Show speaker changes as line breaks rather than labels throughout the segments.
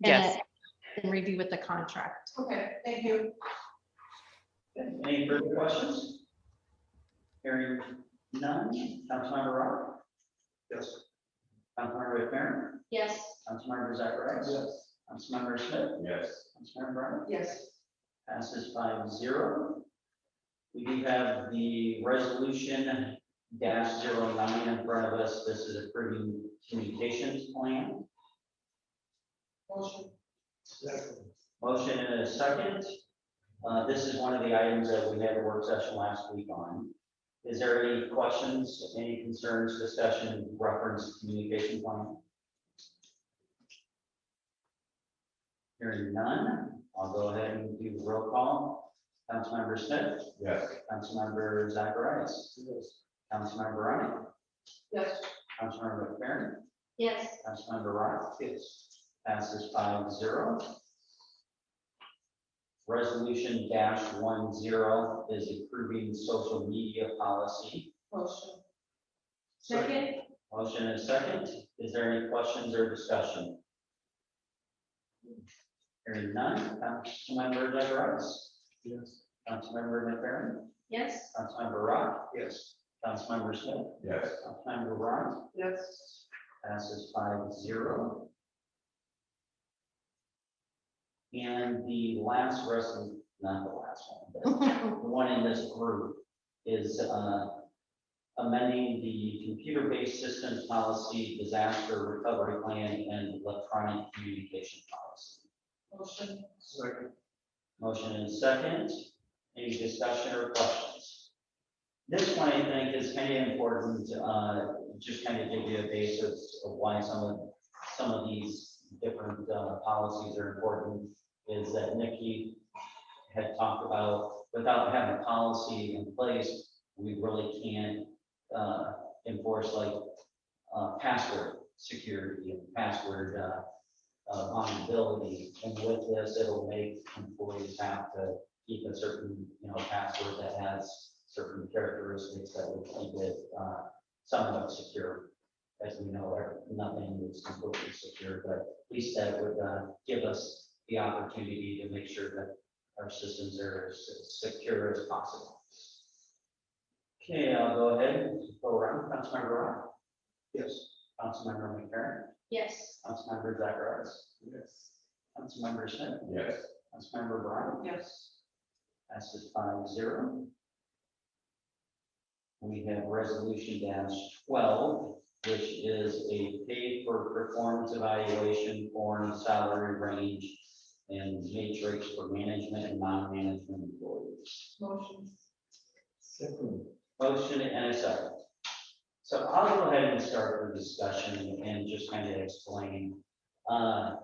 Yes.
And review with the contract.
Okay, thank you.
Any further questions? Hearing none, Councilmember Roberts? Yes. Councilmember McFerrin?
Yes.
Councilmember Zacharias? Yes. Councilmember Smith?
Yes.
Councilmember Brennan?
Yes.
Passes five zero. We do have the resolution dash zero nine in front of us. This is approving communications plan.
Motion.
Motion and a second. Uh, this is one of the items that we had a work session last week on. Is there any questions, any concerns, discussion, reference, communication plan? Hearing none, I'll go ahead and do the roll call. Councilmember Smith,
Yes.
Councilmember Zacharias. Councilmember Ryan,
Yes.
Councilmember McFerrin,
Yes.
Councilmember Ryan. Yes. Passes five zero. Resolution dash one zero is approving social media policy.
Motion.
Second.
Motion and second. Is there any questions or discussion? Hearing none. Councilmember Zacharias. Yes. Councilmember McFerrin.
Yes.
Councilmember Rock. Yes. Councilmember Smith.
Yes.
Councilmember Ryan.
Yes.
Passes five zero. And the last resolution, not the last one, but the one in this group is uh, amending the computer-based systems policy, disaster recovery plan, and electronic communication policy.
Motion.
Motion and second. Any discussion or questions? This one, I think, is kind of important, uh, just kind of give you a basis of why some of, some of these different, uh, policies are important. Is that Nikki had talked about, without having a policy in place, we really can't, uh, enforce like, uh, password security and password, uh, uh, vulnerability. And with this, it'll make employees have to keep a certain, you know, password that has certain characteristics that would keep it uh, somewhat secure. As we know, there- nothing is completely secure, but at least that would uh, give us the opportunity to make sure that our systems are as secure as possible. Okay, I'll go ahead, go around, Councilmember Ryan. Yes. Councilmember McFerrin.
Yes.
Councilmember Zacharias.
Yes.
Councilmember Smith.
Yes.
Councilmember Brown.
Yes.
Passes five zero. We have resolution dash twelve, which is a pay for performance evaluation form, salary range, and matrix for management and non-management employees.
Motion.
Second.
Motion and a second. So I'll go ahead and start the discussion and just kind of explain. Uh,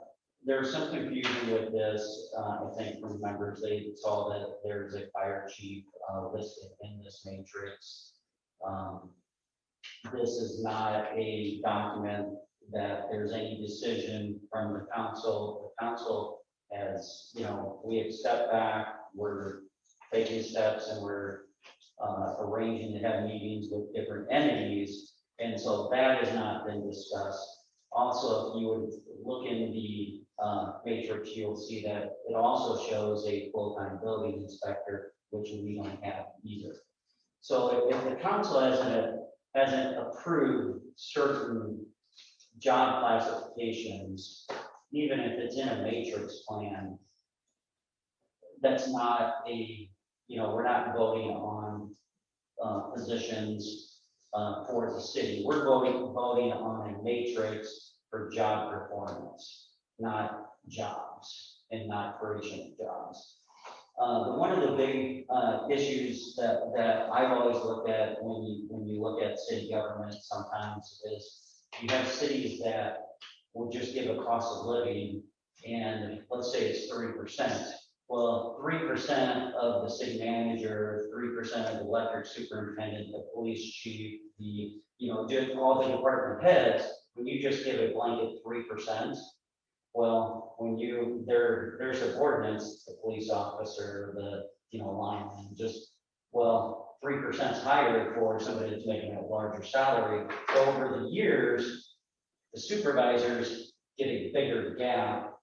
There's some confusion with this, uh, I think from members, they saw that there's a fire chief uh, listed in this matrix. Um, This is not a document that there's any decision from the council. The council has, you know, we have stepped back, we're taking steps and we're uh, arranging to have meetings with different entities. And so that has not been discussed. Also, if you would look in the uh, matrix, you'll see that it also shows a full-time building inspector, which we don't have either. So if if the council hasn't, hasn't approved certain job classifications, even if it's in a matrix plan, that's not a you know, we're not voting on uh, positions uh, for the city. We're voting, voting on a matrix for job performance, not jobs and not creation of jobs. Uh, But one of the big uh, issues that, that I've always looked at when you, when you look at city government sometimes is you have cities that will just give a cost of living and let's say it's three percent. Well, three percent of the city manager, three percent of the electric superintendent, the police chief, the, you know, just all the department heads, when you just give a blanket three percent, well, when you, their, their subordinates, the police officer, the, you know, lineman, just, well, three percent higher for somebody that's making a larger salary. So Over the years, the supervisors get a bigger gap